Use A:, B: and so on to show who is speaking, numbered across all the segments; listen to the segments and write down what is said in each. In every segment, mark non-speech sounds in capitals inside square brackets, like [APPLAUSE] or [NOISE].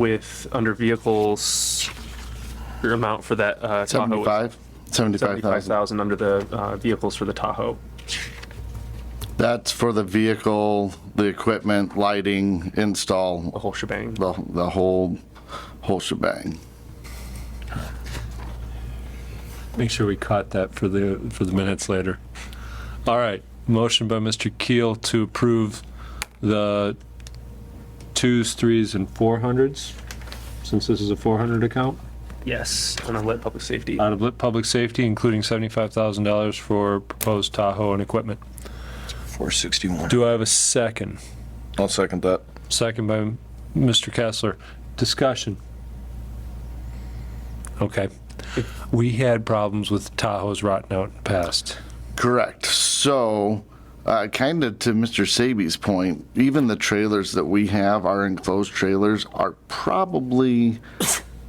A: with, under vehicles, your amount for that uh, Tahoe. was
B: 75, 75,000.
A: 75,000 under the uh, vehicles for the Tahoe.
B: That's for the vehicle, the equipment, lighting,
A: The
B: install,
A: whole shebang.
B: the, the whole, whole shebang.
C: Make sure we caught that for the, for the minutes later. All right, motion by Mr. Keel to approve the twos, threes, and four hundreds, since this is a four hundred account,
A: Yes, and I let public safety.
C: out of lit public safety, including seventy-five thousand dollars for proposed Tahoe and equipment.
D: 461.
C: Do I have a second?
B: I'll second that.
C: Second by Mr. Kessler. Discussion. Okay. We had problems with Tahoe's rotting out in the past.
B: Correct. So, uh, kind of to Mr. Sabi's point, even the trailers that we have, our enclosed trailers, are probably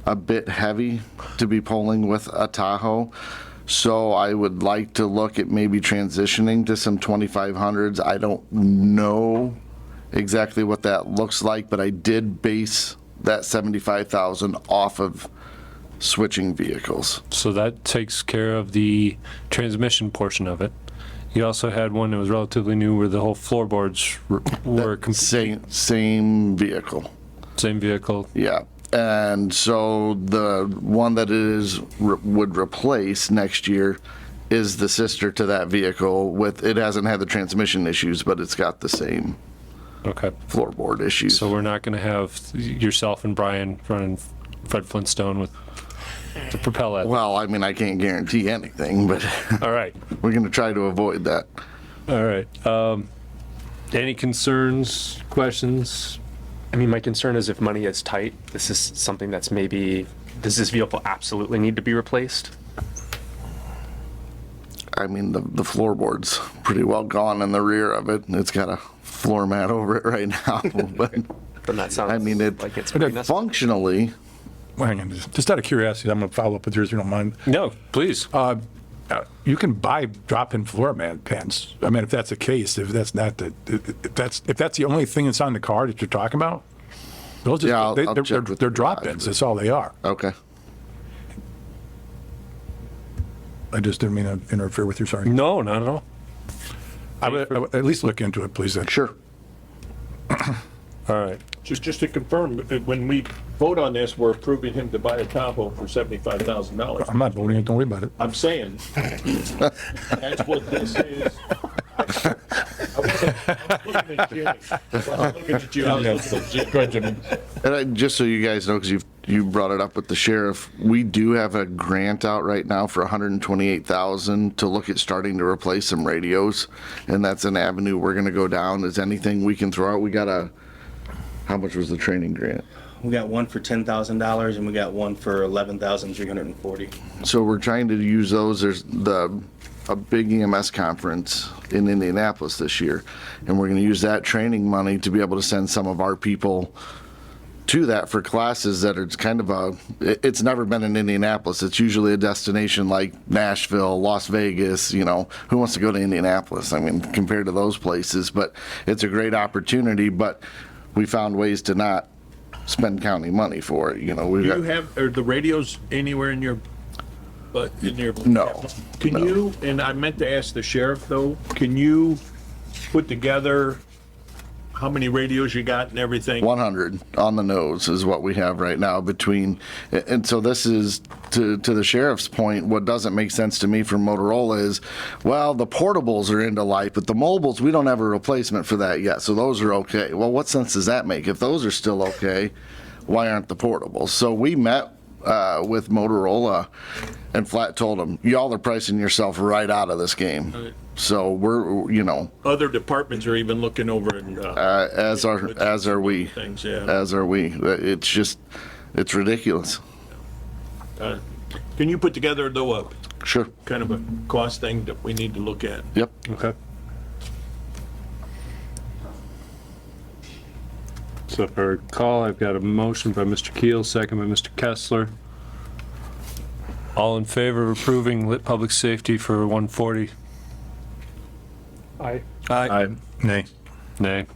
B: a bit heavy to be pulling with a Tahoe. So I would like to look at maybe transitioning to some 2500s. I don't know exactly what that looks like, but I did base that 75,000 off of switching vehicles.
C: So that takes care of the transmission portion of it. You also had one that was relatively new where the whole floorboards were- were com-
B: Same same vehicle.
C: same vehicle.
B: Yeah. And so the one that it is re- would replace next year is the sister to that vehicle with it hasn't had the transmission issues, but it's got the same
C: Okay.
B: floorboard issues.
C: So we're not going to have yourself and Brian running Fred Flintstone with the propel at.
B: well, I mean, I can't guarantee anything, but [LAUGHS]
C: All right.
B: we're going to try to avoid that.
C: All right. Um, any concerns, questions?
A: I mean, my concern is if money is tight, this is something that's maybe, does this vehicle absolutely need to be replaced?
B: I mean, the, the floorboard's pretty well gone in the rear of it. It's got a floor mat over it right now, [LAUGHS] but
A: Then that sounds
B: I mean, it,
A: like it's pretty
B: it
A: necessary.
B: functionally
E: Well, hang on, just just out of curiosity, I'm going to follow up with yours if you don't mind.
C: No, please.
E: Uh, uh, You can buy drop-in floor mat pants. I mean, if that's the case, if that's not the, if if that's, if that's the only thing that's on the card that you're talking about, those
B: Yeah, I'll-
E: just, they-
B: I'll
E: they're,
B: check
E: they're-
B: with
E: they're
B: the garage.
E: drop-ins, that's all they are.
B: okay.
E: I just didn't mean to interfere with you, sorry.
C: No, not at all.
E: I would, I would at least look into it, please. then.
B: Mm-hmm. Sure.
C: All right.
F: Just, just to confirm, uh, when we vote on this, we're approving him to buy a Tahoe for seventy-five thousand dollars.
E: I'm not voting, don't worry about it.
F: I'm saying, that's what this is. I wasn't- I was looking at Jimmy. I was looking at you, I was looking at Jimmy.
B: And I, just so you guys know, because you've you brought it up with the sheriff, we do have a grant out right now for 128,000 to look at starting to replace some radios, and that's an avenue we're going to go down. Is anything we can throw out? We got a. How much was the training grant?
G: We got one for ten thousand dollars and we got one for eleven thousand three hundred and forty.
B: So we're trying to use those. There's the a big EMS conference in Indianapolis this year, and we're going to use that training money to be able to send some of our people to that for classes that are kind of a. it- It's never been in Indianapolis. It's usually a destination like Nashville, Las Vegas. You know, who wants to go to Indianapolis? I mean, compared to those places, but it's a great opportunity. But we found ways to not spend county money for it. You know, we
F: Do you have, are the radios anywhere in your, but in your?
B: No,
F: Can
B: no.
F: you, and I meant to ask the sheriff though, can you put together how many radios you got and everything?
B: 100 on the nose is what we have right now between, and so this is, to, to the sheriff's point, what doesn't make sense to me from Motorola is, well, the portables are into life, but the mobiles, we don't have a replacement for that yet, so those are okay. Well, what sense does that make? If those are still okay, why aren't the portables? So we met uh, with Motorola and flat told them, y'all are pricing yourself right out of this game. So we're, you know,
F: Other departments are even looking over and, uh,
B: uh, as are, as are we
F: things, yeah.
B: as are we. It's just, it's ridiculous.
F: Uh, Can you put together though a
B: Sure.
F: kind of a cost thing that we need to look at?
B: Yep.
C: Okay. So if I recall, I've got a motion by Mr. Keel, second by Mr. Kessler. All in favor of approving lit public safety for 140?
A: I-
C: Aye. Nay. Nay.